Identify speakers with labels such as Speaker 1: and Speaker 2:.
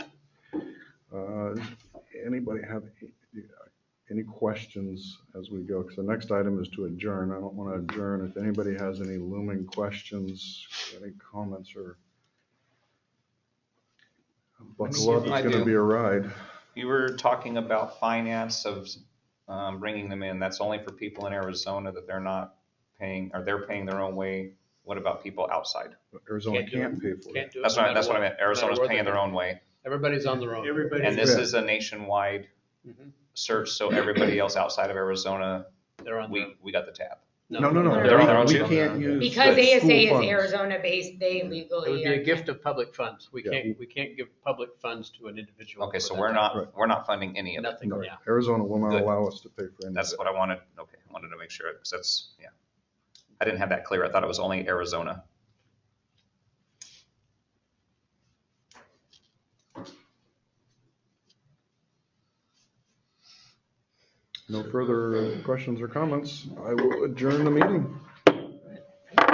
Speaker 1: Uh, Anybody have any questions as we go? Because the next item is to adjourn. I don't want to adjourn. If anybody has any looming questions, any comments or buckle up, it's
Speaker 2: I
Speaker 1: going to
Speaker 2: do.
Speaker 1: be a ride.
Speaker 2: You were talking about finance of um, bringing them in. That's only for people in Arizona that they're not paying, or they're paying their own way. What about people outside?
Speaker 1: Arizona
Speaker 3: Can't do it.
Speaker 1: can't pay for it.
Speaker 3: Can't do it.
Speaker 2: That's
Speaker 3: no
Speaker 2: what,
Speaker 3: matter
Speaker 2: I- that's what I meant. Arizona's
Speaker 3: where
Speaker 2: paying
Speaker 3: they
Speaker 2: their
Speaker 3: go.
Speaker 2: own way.
Speaker 3: Everybody's on their own.
Speaker 4: Everybody-
Speaker 2: And this
Speaker 1: Yeah.
Speaker 2: is a nationwide
Speaker 3: Mhm.
Speaker 2: search, so everybody else outside of Arizona,
Speaker 3: They're on their.
Speaker 2: we, we got the tab.
Speaker 1: No, no, no.
Speaker 2: They're on their own
Speaker 1: We
Speaker 2: too.
Speaker 1: can't use.
Speaker 5: Because
Speaker 1: school
Speaker 5: ASA is
Speaker 1: funds.
Speaker 5: Arizona-based, they legally.
Speaker 3: It would be
Speaker 5: are-
Speaker 3: a gift of public funds. We
Speaker 1: Yeah.
Speaker 3: can't, we can't give public funds to an individual.
Speaker 2: Okay,
Speaker 3: for
Speaker 2: so
Speaker 3: that
Speaker 2: we're
Speaker 3: type
Speaker 2: not,
Speaker 1: Right.
Speaker 2: we're not funding any
Speaker 3: of-
Speaker 2: of it.
Speaker 3: Nothing,
Speaker 1: No,
Speaker 3: yeah.
Speaker 1: Arizona will not
Speaker 2: Good.
Speaker 1: allow us to pay for any of
Speaker 2: That's
Speaker 1: it.
Speaker 2: what I wanted. Okay, I wanted to make sure, because that's, yeah. I didn't have that clear. I thought it was only Arizona.
Speaker 1: No further questions or comments. I will adjourn the meeting.